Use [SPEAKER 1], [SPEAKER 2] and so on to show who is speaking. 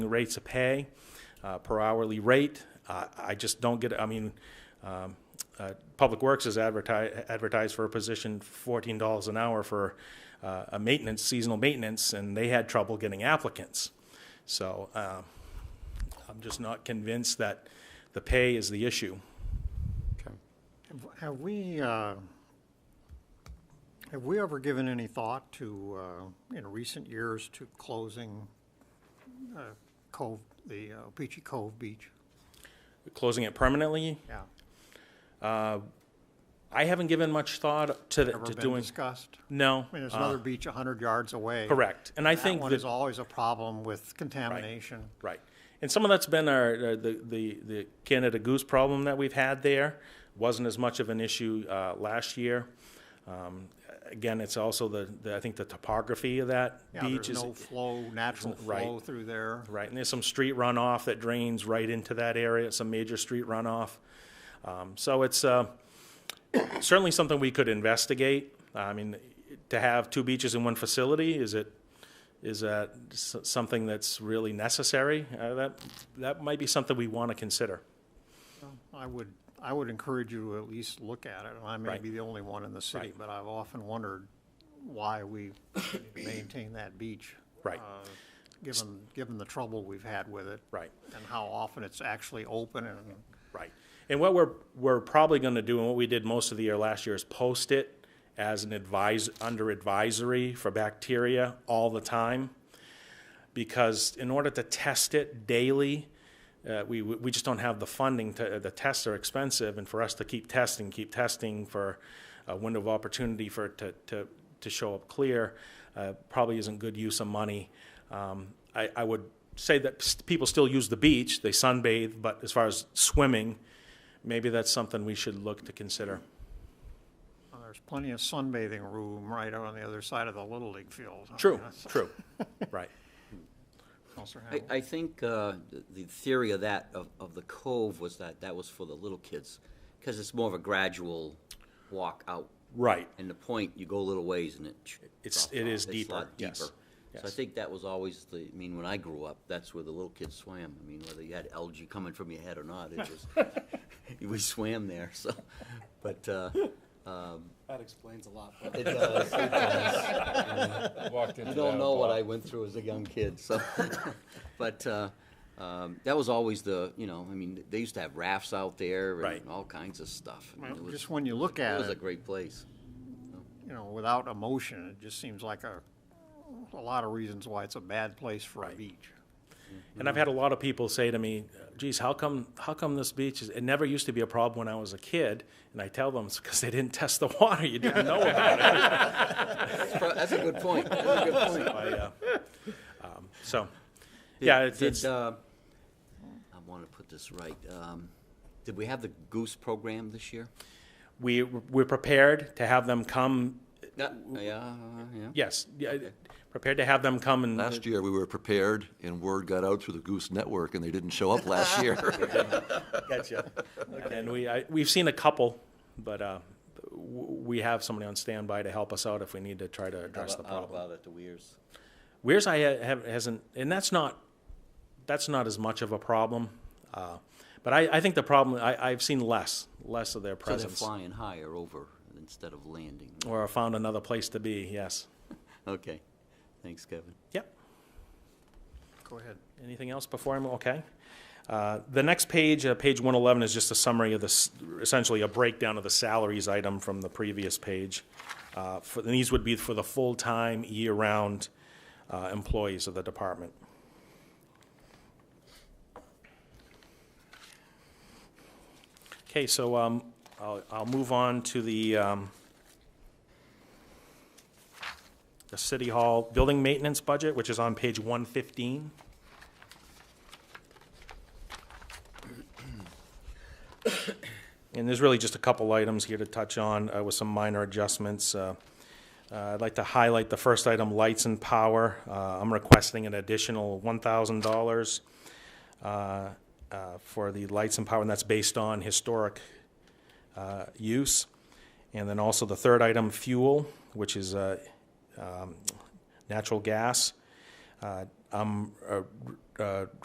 [SPEAKER 1] the rates of pay, uh, per hourly rate. Uh, I just don't get, I mean, um, uh, Public Works is advertised, advertised for a position fourteen dollars an hour for uh, a maintenance, seasonal maintenance, and they had trouble getting applicants. So um, I'm just not convinced that the pay is the issue.
[SPEAKER 2] Okay.
[SPEAKER 3] Have- Have we, uh, have we ever given any thought to, uh, in recent years, to closing uh, Cove, the uh, Peachy Cove Beach?
[SPEAKER 1] Closing it permanently,
[SPEAKER 3] Yeah.
[SPEAKER 1] I haven't given much thought to, the-
[SPEAKER 3] Ever
[SPEAKER 1] to
[SPEAKER 3] been
[SPEAKER 1] doing,
[SPEAKER 3] discussed?
[SPEAKER 1] no.
[SPEAKER 3] I mean, there's
[SPEAKER 1] uh,
[SPEAKER 3] another beach 100 yards away.
[SPEAKER 1] Correct. And I
[SPEAKER 3] That
[SPEAKER 1] think
[SPEAKER 3] one
[SPEAKER 1] that-
[SPEAKER 3] is always a problem with contamination.
[SPEAKER 1] Right. And some of that's been our, uh, the, the, the Canada goose problem that we've had there. Wasn't as much of an issue, uh, last year. Um, again, it's also the, the, I think the topography of that
[SPEAKER 3] Yeah,
[SPEAKER 1] beach
[SPEAKER 3] there's
[SPEAKER 1] is.
[SPEAKER 3] no flow, natural
[SPEAKER 1] right.
[SPEAKER 3] flow through there.
[SPEAKER 1] Right, and there's some street runoff that drains right into that area, some major street runoff. Um, so it's, uh, certainly something we could investigate. I mean, to have two beaches in one facility, is it, is that s- something that's really necessary? Uh, that, that might be something we want to consider.
[SPEAKER 3] I would, I would encourage you to at least look at it, and I may
[SPEAKER 1] Right.
[SPEAKER 3] be the only one in the city,
[SPEAKER 1] Right.
[SPEAKER 3] but I've often wondered why we maintain that beach.
[SPEAKER 1] Right.
[SPEAKER 3] uh, Given, given the trouble we've had with it.
[SPEAKER 1] Right.
[SPEAKER 3] And how often it's actually open and,
[SPEAKER 1] Right. And what we're, we're probably going to do, and what we did most of the year last year, is post it as an advise, under advisory for bacteria all the time. Because in order to test it daily, uh, we, we just don't have the funding to, the tests are expensive, and for us to keep testing, keep testing for a window of opportunity for, it to, to, to show up clear, uh, probably isn't good use of money. Um, I, I would say that s- people still use the beach, they sunbathe, but as far as swimming, maybe that's something we should look to consider.
[SPEAKER 3] uh, there's plenty of sunbathing room right out on the other side of the Little League field. I mean,
[SPEAKER 1] True,
[SPEAKER 3] that's-
[SPEAKER 1] true, right.
[SPEAKER 3] Counselor
[SPEAKER 4] I,
[SPEAKER 3] Hamel?
[SPEAKER 4] I think uh, th- the theory of that, of, of the cove, was that that was for the little kids, because it's more of a gradual walk out.
[SPEAKER 1] Right,
[SPEAKER 4] And the point, you go a little ways and it. ch-
[SPEAKER 1] It's-
[SPEAKER 4] drops
[SPEAKER 1] it
[SPEAKER 4] off.
[SPEAKER 1] is
[SPEAKER 4] It's a
[SPEAKER 1] deeper,
[SPEAKER 4] lot
[SPEAKER 1] yes,
[SPEAKER 4] deeper. So I
[SPEAKER 1] yes.
[SPEAKER 4] think that was always the, I mean, when I grew up, that's where the little kids swam. I mean, whether you had algae coming from your head or not, it was, we swam there, so, but, uh,
[SPEAKER 5] That explains a lot.
[SPEAKER 4] it does, it does.
[SPEAKER 2] Walked into
[SPEAKER 4] You don't
[SPEAKER 2] that
[SPEAKER 4] know what
[SPEAKER 2] bar.
[SPEAKER 4] I went through as a young kid, so. But uh, um, that was always the, you know, I mean, they used to have rafts out there
[SPEAKER 1] Right.
[SPEAKER 4] and all kinds of stuff. I mean,
[SPEAKER 3] Well,
[SPEAKER 4] it was-
[SPEAKER 3] Just when you look at
[SPEAKER 4] It
[SPEAKER 3] it.
[SPEAKER 4] was a great place.
[SPEAKER 3] you know, without emotion, it just seems like a, a lot of reasons why it's a bad place for a
[SPEAKER 1] Right.
[SPEAKER 3] beach.
[SPEAKER 1] and I've had a lot of people say to me, geez, how come, how come this beach is, it never used to be a problem when I was a kid? And I tell them, it's because they didn't test the water, you didn't know about it.
[SPEAKER 4] That's pro- that's a good point, that's a good point.
[SPEAKER 1] I, uh, um, So,
[SPEAKER 4] Did-
[SPEAKER 1] yeah, it's,
[SPEAKER 4] did,
[SPEAKER 1] it's,
[SPEAKER 4] uh, I want to put this right. Um, Did we have the goose program this year?
[SPEAKER 1] we, we're prepared to have them come,
[SPEAKER 4] Yeah, yeah, yeah.
[SPEAKER 1] yes, yeah, prepared to have them come and.
[SPEAKER 6] Last year, we were prepared, and word got out through the Goose Network, and they didn't show up last year.
[SPEAKER 1] Gotcha. And we, I, we've seen a couple, but, uh, w- we have somebody on standby to help us out if we need to try to address the
[SPEAKER 4] Out- out
[SPEAKER 1] problem.
[SPEAKER 4] about it, the weirs.
[SPEAKER 1] Where's I ha- have, hasn't, and that's not, that's not as much of a problem. Uh, But I, I think the problem, I, I've seen less, less of their
[SPEAKER 4] So they're
[SPEAKER 1] presence.
[SPEAKER 4] flying higher over instead of landing.
[SPEAKER 1] Or found another place to be, yes.
[SPEAKER 4] Okay, thanks, Kevin.
[SPEAKER 1] Yep.
[SPEAKER 3] Go ahead.
[SPEAKER 1] Anything else before I'm, okay. Uh, The next page, uh, page 111, is just a summary of this, essentially a breakdown of the salaries item from the previous page. Uh, for- And these would be for the full-time, year-round uh, employees of the department. Okay, so um, I'll I'll move on to the um, the City Hall Building Maintenance Budget, which is on page 115. And there's really just a couple items here to touch on uh, with some minor adjustments. Uh, uh, I'd like to highlight the first item, lights and power. Uh, I'm requesting an additional $1,000 uh, uh, for the lights and power, and that's based on historic uh, use. And then also the third item, fuel, which is uh, um, natural gas. Uh, I'm uh,
[SPEAKER 2] uh,